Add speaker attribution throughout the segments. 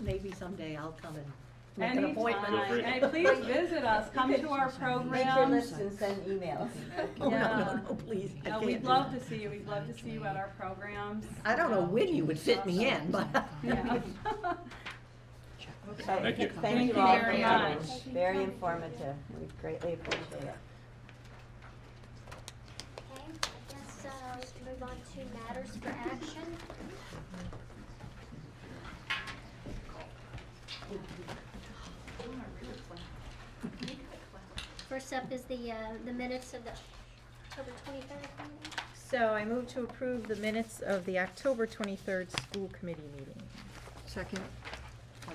Speaker 1: maybe someday I'll come and make an appointment.
Speaker 2: Anytime,
Speaker 3: free.
Speaker 2: and please visit us, come to our
Speaker 4: Make your
Speaker 2: programs.
Speaker 4: list and send emails.
Speaker 1: Oh, no,
Speaker 2: Yeah.
Speaker 1: no, no, please, I
Speaker 2: Uh,
Speaker 1: can't.
Speaker 2: we'd
Speaker 1: do
Speaker 2: love
Speaker 1: that.
Speaker 2: to see you, we'd love to see you at our programs.
Speaker 1: I don't know when you would fit me in, but.
Speaker 2: Yeah.
Speaker 3: Thank you.
Speaker 4: Thank you
Speaker 2: you
Speaker 4: all for
Speaker 2: very
Speaker 4: coming.
Speaker 2: much.
Speaker 4: Very informative. We greatly appreciate it.
Speaker 5: Okay, I guess, uh, we can move on to matters for action. First up is the, uh, the minutes of the October twenty-third meeting.
Speaker 6: So I move to approve the minutes of the October 23rd school committee meeting.
Speaker 1: Second.
Speaker 6: Yes,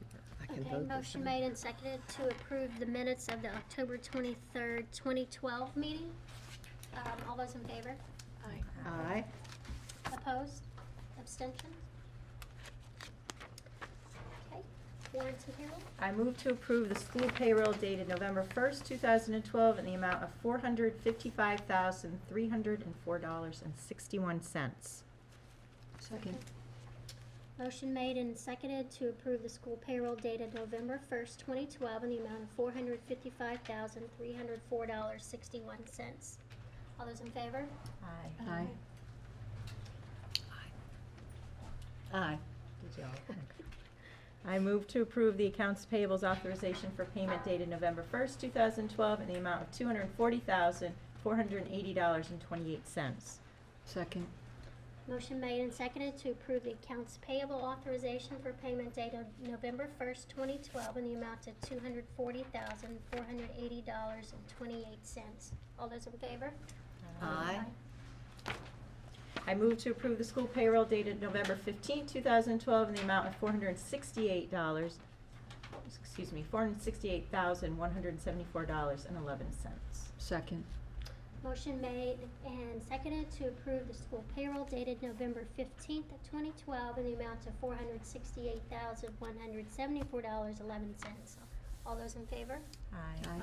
Speaker 6: you are.
Speaker 1: I can
Speaker 5: Okay,
Speaker 1: vote this
Speaker 5: motion
Speaker 1: time.
Speaker 5: made and seconded to approve the minutes of the October twenty-third, twenty twelve meeting. Um, all those in favor?
Speaker 1: Aye.
Speaker 5: Opposed? Abstentions? Okay, warrants and payroll?
Speaker 6: I move to approve the school payroll dated November 1st, 2012, in the amount of $455,304.61.
Speaker 1: Second.
Speaker 5: Motion made and seconded to approve the school payroll dated November first, twenty twelve, in the amount of four hundred fifty-five thousand, three hundred four dollars, sixty-one cents. All those in favor?
Speaker 6: Aye.
Speaker 1: Aye. Aye.
Speaker 6: Did y'all? I move to approve the accounts payables authorization for payment dated November 1st, 2012, in the amount of $240,480.28.
Speaker 1: Second.
Speaker 5: Motion made and seconded to approve the accounts payable authorization for payment dated November first, twenty twelve, in the amount of two hundred forty thousand, four hundred eighty dollars and twenty-eight cents. All those in favor?
Speaker 1: Aye.
Speaker 6: I move to approve the school payroll dated November 15, 2012, in the amount of $468, excuse me, $468,174.11.
Speaker 1: Second.
Speaker 5: Motion made and seconded to approve the school payroll dated November fifteenth, twenty twelve, in the amount of four hundred sixty-eight thousand, one hundred seventy-four dollars, eleven cents. All those in favor?
Speaker 1: Aye.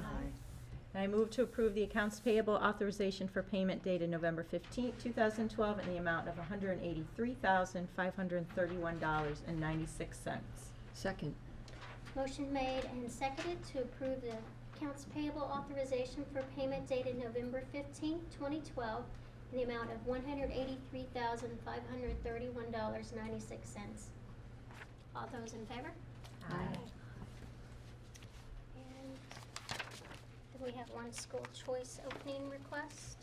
Speaker 6: And I move to approve the accounts payable authorization for payment dated November 15, 2012, in the amount of $183,531.96.
Speaker 1: Second.
Speaker 5: Motion made and seconded to approve the accounts payable authorization for payment dated November fifteenth, twenty twelve, in the amount of one hundred eighty-three thousand, five hundred thirty-one dollars, ninety-six cents. All those in favor?
Speaker 1: Aye.
Speaker 5: And then we have one school choice opening request.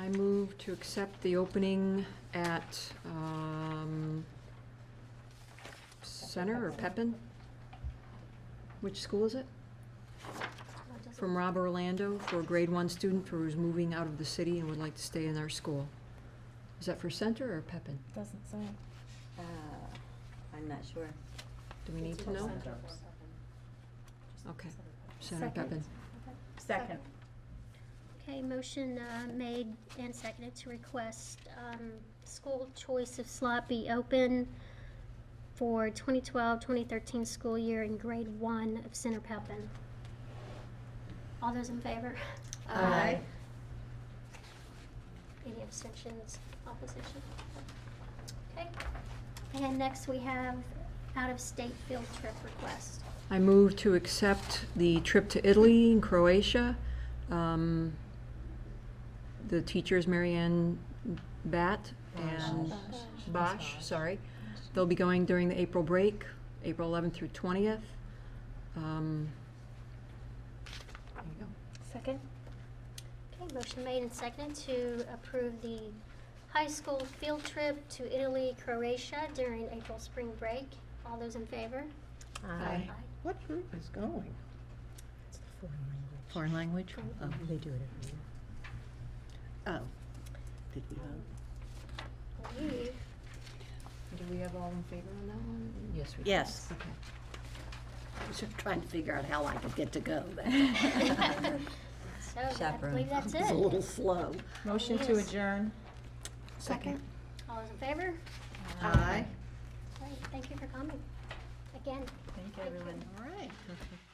Speaker 7: I move to accept the opening at, um, Center or Pepin? Which school is it?
Speaker 5: What does it-
Speaker 7: From Rob Orlando for a grade one student who is moving out of the city and would like to stay in our school. Is that for Center or Pepin?
Speaker 6: Doesn't say.
Speaker 4: Uh, I'm not sure.
Speaker 7: Do we need to know? Okay, Center Pepin.
Speaker 6: Second.
Speaker 5: Okay, motion uh, made and seconded to request um, school choice of slot be open for 2012-2013 school year in grade one of Center Pepin. All those in favor?
Speaker 1: Aye.
Speaker 5: Any abstentions, opposition? Okay. And next, we have out-of-state field trip request.
Speaker 7: I move to accept the trip to Italy and Croatia. Um, The teacher is Marianne Bat and Bosch, sorry. They'll be going during the April break, April 11th through 20th. Um, There you go.
Speaker 5: Second. Okay, motion made and seconded to approve the high school field trip to Italy, Croatia during April spring break. All those in favor?
Speaker 6: Aye.
Speaker 1: What group is going?
Speaker 6: Foreign language?
Speaker 1: Oh,
Speaker 6: They do it
Speaker 1: oh. Did we vote?
Speaker 5: Leave.
Speaker 7: Do we have all in favor on that one? Yes, we do.
Speaker 1: Yes.
Speaker 7: Okay.
Speaker 1: I was just trying to figure out how I could get to go.
Speaker 5: So I
Speaker 4: Chaperone.
Speaker 5: believe that's
Speaker 1: It's a little
Speaker 5: it.
Speaker 1: slow.
Speaker 6: Motion to
Speaker 5: Yes.
Speaker 6: adjourn.
Speaker 5: Second. All those in favor?
Speaker 1: Aye.
Speaker 5: Great, Thank you for coming. Again.
Speaker 6: Thank
Speaker 5: everyone.
Speaker 1: All right.